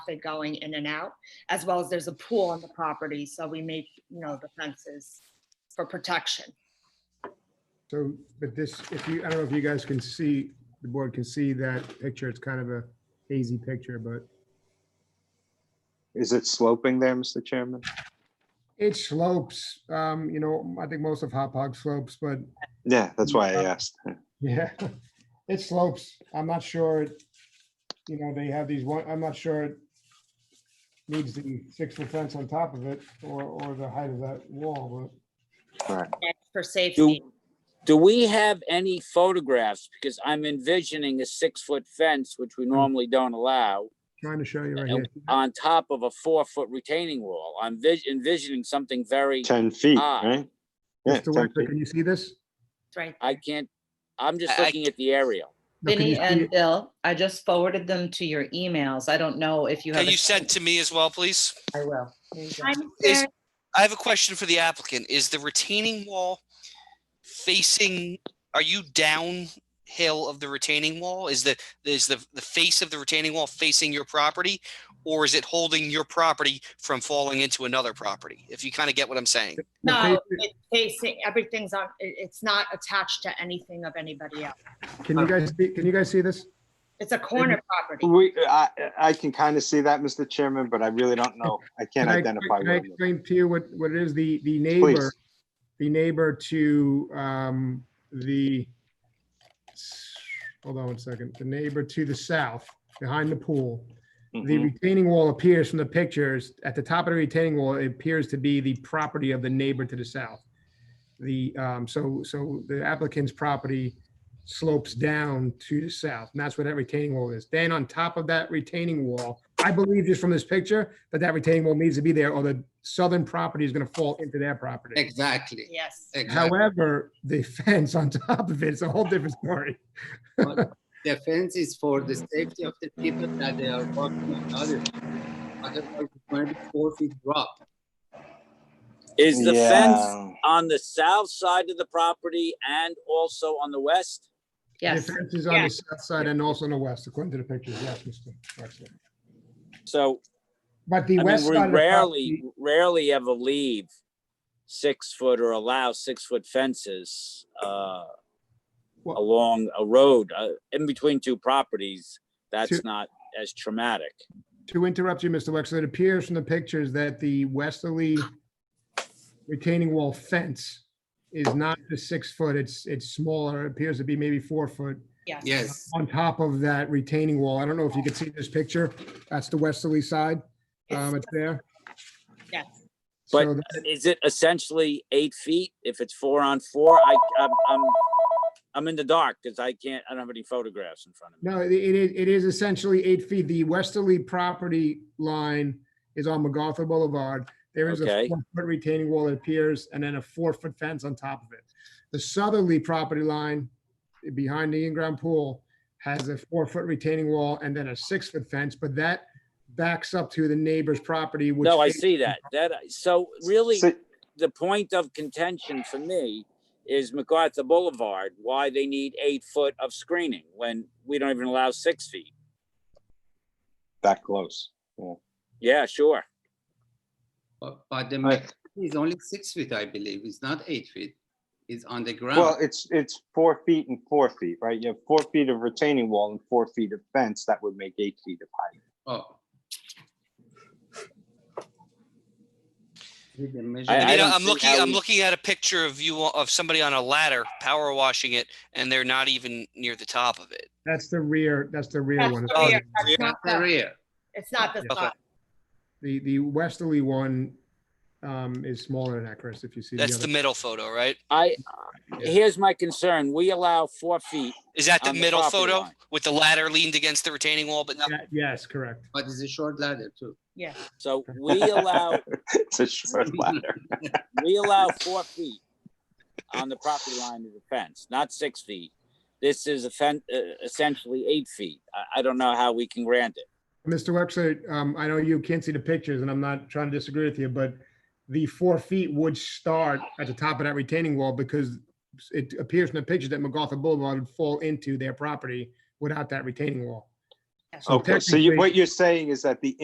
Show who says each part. Speaker 1: traffic going in and out, as well as there's a pool on the property, so we make, you know, the fences for protection.
Speaker 2: So, but this, if you, I don't know if you guys can see, the board can see that picture. It's kind of a hazy picture, but
Speaker 3: Is it sloping there, Mr. Chairman?
Speaker 2: it slopes, um, you know, I think most of Hop Hog slopes, but
Speaker 3: Yeah, that's why I
Speaker 2: Yeah.
Speaker 3: asked.
Speaker 2: yeah, it slopes. I'm not sure, you know, they have these one, I'm not sure it needs the six foot fence on top of it or, or the height of that wall, but
Speaker 3: Right.
Speaker 1: That's For safety,
Speaker 4: Do we have any photographs? Because I'm envisioning a six-foot fence, which we normally don't allow,
Speaker 2: trying to show you right here.
Speaker 4: and on top of a four-foot retaining wall. I'm vis- envisioning something very,
Speaker 3: Ten feet,
Speaker 4: Ah.
Speaker 3: right? Yeah,
Speaker 2: Mr.
Speaker 3: 10
Speaker 2: Wexler,
Speaker 3: feet.
Speaker 2: can you see this?
Speaker 1: it's right.
Speaker 4: I can't, I'm just
Speaker 5: I- I-
Speaker 4: looking at the aerial.
Speaker 2: No, can
Speaker 6: Vinny
Speaker 2: you see
Speaker 6: and
Speaker 2: it?
Speaker 6: Bill, I just forwarded them to your emails. I don't know if you have.
Speaker 5: Can you send to me as well, please?
Speaker 6: I will. There you go.
Speaker 1: I'm
Speaker 5: Is-
Speaker 1: scared.
Speaker 5: I have a question for the applicant. Is the retaining wall facing, are you downhill of the retaining wall? Is the, is the, the face of the retaining wall facing your property? Or is it holding your property from falling into another property? If you kind of get what I'm saying.
Speaker 2: The
Speaker 1: No,
Speaker 2: face-
Speaker 1: it's facing, everything's on, it- it's not attached to anything of anybody else.
Speaker 2: Can you guys, see- can you guys see this?
Speaker 1: It's a corner property.
Speaker 3: We, I, I can kind of see that, Mr. Chairman, but I really don't know. I can't
Speaker 2: Can I-
Speaker 3: identify.
Speaker 2: Can
Speaker 3: where
Speaker 2: I
Speaker 3: I'm looking.
Speaker 2: explain to you what, what it is? The, the neighbor, the neighbor to, um, the, hold on one second, the neighbor to the south, behind the pool. The
Speaker 3: Mhm.
Speaker 2: retaining wall appears from the pictures, at the top of the retaining wall, it appears to be the property of the neighbor to the south. The, um, so, so the applicant's property slopes down to the south, and that's where that retaining wall is. Then on top of that retaining wall, I believe just from this picture, that that retaining wall needs to be there, or the southern property is gonna fall into their property.
Speaker 7: Exactly.
Speaker 1: Yes.
Speaker 7: Exactly.
Speaker 2: However, the fence on top of it's a whole different story.
Speaker 7: The fence is for the safety of the people that they are walking on other. Otherwise, it's going to be four feet drop.
Speaker 4: Is the fence
Speaker 3: Yeah.
Speaker 4: on the south side of the property and also on the west?
Speaker 2: The
Speaker 6: Yes,
Speaker 2: fence is on the south side and also on the west, according to the pictures, yes, Mr. Wexler.
Speaker 4: So
Speaker 2: But the
Speaker 4: I mean,
Speaker 2: west
Speaker 4: we
Speaker 2: side. of the
Speaker 4: rarely,
Speaker 2: property-
Speaker 4: rarely ever leave six foot or allow six foot fences uh,
Speaker 2: Well-
Speaker 4: along a road uh, in between two properties.
Speaker 2: Two-
Speaker 4: That's not as traumatic.
Speaker 2: To interrupt you, Mr. Wexler, it appears from the pictures that the westerly retaining wall fence is not the six foot, it's, it's smaller, it appears to be maybe four foot
Speaker 1: Yes.
Speaker 7: Yes.
Speaker 2: on top of that retaining wall. I don't know if you can see this picture, that's the westerly side,
Speaker 1: It's-
Speaker 2: um, it's there.
Speaker 1: Yes.
Speaker 4: But-
Speaker 2: So
Speaker 4: Is it essentially eight feet if it's four on four? I, I'm, I'm, I'm in the dark because I can't, I don't have any photographs in front of me.
Speaker 2: No, it it is, it is essentially eight feet. The westerly property line is on MacArthur Boulevard. There is a
Speaker 4: Okay.
Speaker 2: four-foot retaining wall that appears and then a four-foot fence on top of it. The southerly property line behind the in-ground pool has a four-foot retaining wall and then a six-foot fence, but that backs up to the neighbor's property, which.
Speaker 4: No, I see that. That, so really,
Speaker 3: So-
Speaker 4: the point of contention for me is MacArthur Boulevard, why they need eight foot of screening when we don't even allow six feet.
Speaker 3: That close.
Speaker 4: Yeah, sure.
Speaker 7: But, but the
Speaker 3: Right.
Speaker 7: maximum is only six feet, I believe. It's not eight feet. It's on the ground.
Speaker 3: Well, it's, it's four feet and four feet, right? You have four feet of retaining wall and four feet of fence. That would make eight feet of height.
Speaker 7: oh. Did they measure
Speaker 4: I-
Speaker 5: I
Speaker 7: it?
Speaker 5: mean,
Speaker 4: don't
Speaker 5: I'm
Speaker 4: see
Speaker 5: looking,
Speaker 4: how
Speaker 5: I'm
Speaker 4: we-
Speaker 5: looking at a picture of you, of somebody on a ladder, power washing it, and they're not even near the top of it.
Speaker 2: That's the rear, that's the rear
Speaker 1: That's
Speaker 2: one.
Speaker 1: the rear, that's not
Speaker 7: The
Speaker 1: the-
Speaker 7: rear.
Speaker 1: It's not the
Speaker 5: Okay.
Speaker 1: side.
Speaker 2: The, the westerly one um, is smaller than that, Chris, if you see.
Speaker 5: That's
Speaker 2: other-
Speaker 5: the middle photo, right?
Speaker 4: I, here's my concern. We allow four feet.
Speaker 5: Is that the
Speaker 4: On the
Speaker 5: middle
Speaker 4: property
Speaker 5: photo
Speaker 4: line.
Speaker 5: with the ladder leaned against the retaining wall, but not
Speaker 2: Yeah, Yes, correct.
Speaker 7: But it's a short ladder too.
Speaker 1: Yes.
Speaker 4: So we allow,
Speaker 3: It's a short ladder.
Speaker 4: we allow four feet on the property line of the fence, not six feet. This is offen- uh, essentially eight feet. I, I don't know how we can grant it.
Speaker 2: Mr. Wexler, um, I know you can't see the pictures and I'm not trying to disagree with you, but the four feet would start at the top of that retaining wall because it appears in the picture that MacArthur Boulevard would fall into their property without that retaining wall.
Speaker 1: Yes.
Speaker 2: So
Speaker 3: Okay, so you,
Speaker 2: technically-
Speaker 3: what you're saying is that the